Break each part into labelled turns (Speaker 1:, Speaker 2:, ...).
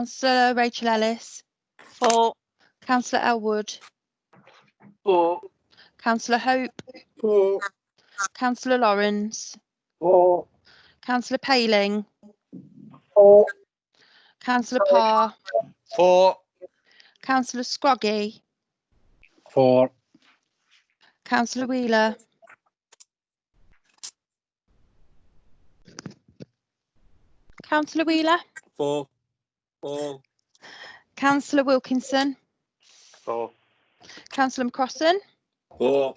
Speaker 1: Councillor Rachel Ellis,
Speaker 2: Four.
Speaker 1: Councillor Elwood,
Speaker 2: Four.
Speaker 1: Councillor Hope,
Speaker 2: Four.
Speaker 1: Councillor Lawrence,
Speaker 2: Four.
Speaker 1: Councillor Paling,
Speaker 2: Four.
Speaker 1: Councillor Parr,
Speaker 2: Four.
Speaker 1: Councillor Scroggy,
Speaker 2: Four.
Speaker 1: Councillor Wheeler, Councillor Wheeler,
Speaker 2: Four. Four.
Speaker 1: Councillor Wilkinson,
Speaker 2: Four.
Speaker 1: Councillor McCrossan,
Speaker 2: Four.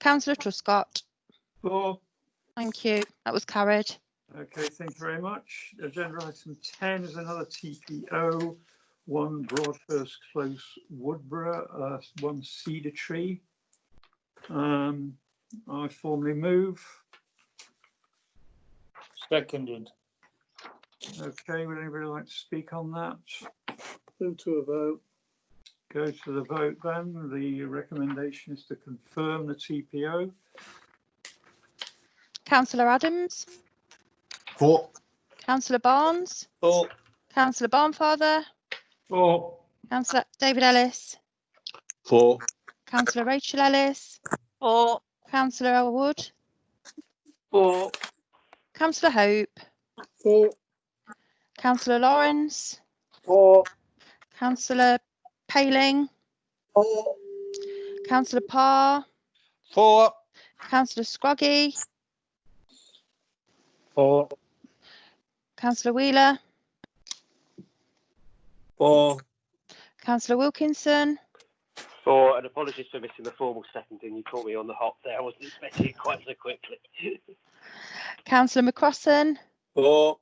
Speaker 1: Councillor Truscott.
Speaker 3: Four.
Speaker 1: Thank you. That was carried.
Speaker 3: Okay, thank you very much. Agenda item ten is another TPO, one Broadhurst Close, Woodborough, uh, one cedar tree. Um, I formally move.
Speaker 4: Seconded.
Speaker 3: Okay, would anybody like to speak on that?
Speaker 4: Move to a vote.
Speaker 3: Go to the vote then. The recommendation is to confirm the TPO.
Speaker 1: Councillor Adams,
Speaker 4: Four.
Speaker 1: Councillor Barnes,
Speaker 2: Four.
Speaker 1: Councillor Barnfather,
Speaker 3: Four.
Speaker 1: Councillor David Ellis,
Speaker 2: Four.
Speaker 1: Councillor Rachel Ellis,
Speaker 2: Four.
Speaker 1: Councillor Elwood,
Speaker 2: Four.
Speaker 1: Councillor Hope,
Speaker 4: Four.
Speaker 1: Councillor Lawrence,
Speaker 2: Four.
Speaker 1: Councillor Paling,
Speaker 2: Four.
Speaker 1: Councillor Parr,
Speaker 2: Four.
Speaker 1: Councillor Scroggy,
Speaker 2: Four.
Speaker 1: Councillor Wheeler,
Speaker 2: Four.
Speaker 1: Councillor Wilkinson,
Speaker 5: Four, and apologies for missing the formal seconding. You caught me on the hop there. I wasn't expecting it quite so quickly.
Speaker 1: Councillor McCrossan,
Speaker 2: Four.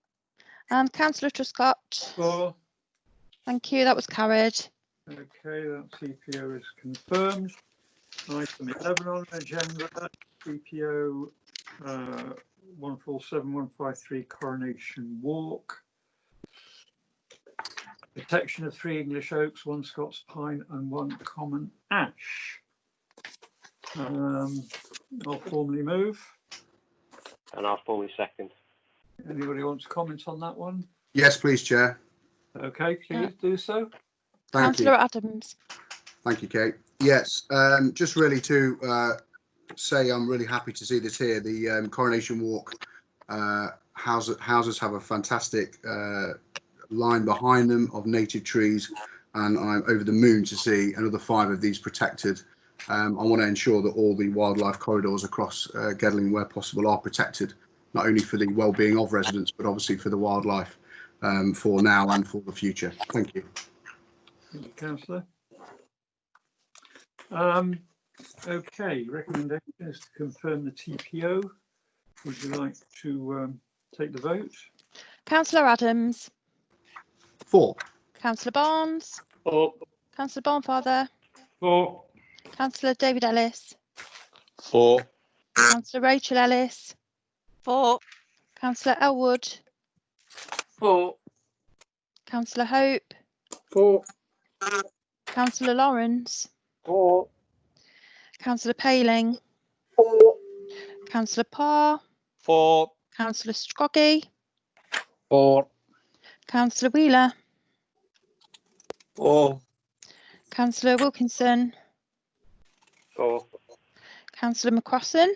Speaker 1: and Councillor Truscott.
Speaker 3: Four.
Speaker 1: Thank you. That was carried.
Speaker 3: Okay, that CPO is confirmed. Item 11 on the agenda, CPO uh, 147153 Coronation Walk. Protection of three English oaks, one Scots pine and one common ash. Um, I'll formally move.
Speaker 5: And I'll formally second.
Speaker 3: Anybody want to comment on that one?
Speaker 6: Yes, please, Chair.
Speaker 3: Okay,
Speaker 1: Yeah.
Speaker 3: please do so.
Speaker 6: Thank you.
Speaker 1: Councillor Adams.
Speaker 6: Thank you, Kate. Yes, um, just really to uh, say I'm really happy to see this here. The um, Coronation Walk uh, houses, houses have a fantastic uh, line behind them of native trees, and I'm over the moon to see another five of these protected. Um, I want to ensure that all the wildlife corridors across uh, Gedling, where possible, are protected, not only for the well-being of residents, but obviously for the wildlife um, for now and for the future. Thank you.
Speaker 3: Thank you, councillor. Um, okay, recommendation is to confirm the TPO. Would you like to, um, take the vote?
Speaker 1: Councillor Adams,
Speaker 6: Four.
Speaker 1: Councillor Barnes,
Speaker 4: Four.
Speaker 1: Councillor Barnfather,
Speaker 4: Four.
Speaker 1: Councillor David Ellis,
Speaker 2: Four.
Speaker 1: Councillor Rachel Ellis,
Speaker 2: Four.
Speaker 1: Councillor Elwood,
Speaker 2: Four.
Speaker 1: Councillor Hope,
Speaker 4: Four.
Speaker 1: Councillor Lawrence,
Speaker 2: Four.
Speaker 1: Councillor Paling,
Speaker 2: Four.
Speaker 1: Councillor Parr,
Speaker 2: Four.
Speaker 1: Councillor Scroggy,
Speaker 2: Four.
Speaker 1: Councillor Wheeler,
Speaker 2: Four.
Speaker 1: Councillor Wilkinson,
Speaker 5: Four.
Speaker 1: Councillor McCrossan,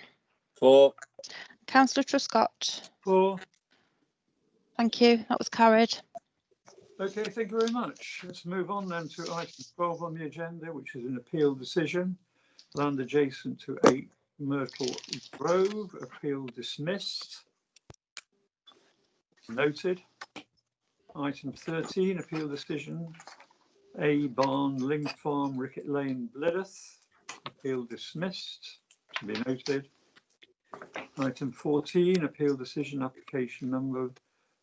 Speaker 2: Four.
Speaker 1: Councillor Truscott.
Speaker 3: Four.
Speaker 1: Thank you. That was carried.
Speaker 3: Okay, thank you very much. Let's move on then to item twelve on the agenda, which is an appeal decision. Land adjacent to eight Myrtle Grove, appeal dismissed. Noted. Item thirteen, appeal decision, A Barn, Ling Farm, Ricket Lane, Bledeth, appeal dismissed, to be noted. Item fourteen, appeal decision, application number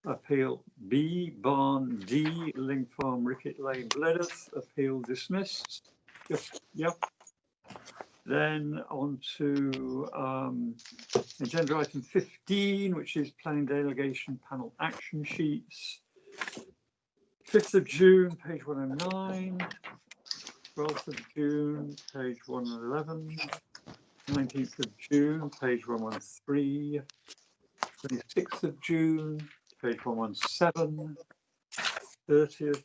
Speaker 3: Appeal B, Barn D, Ling Farm, Ricket Lane, Bledeth, appeal dismissed. Yep, Yep. Then on to um, agenda item 15, which is planning delegation panel action sheets. 5th of June, page 109. 12th of June, page 111. 19th of June, page 113. 26th of June, page one one seven. 30th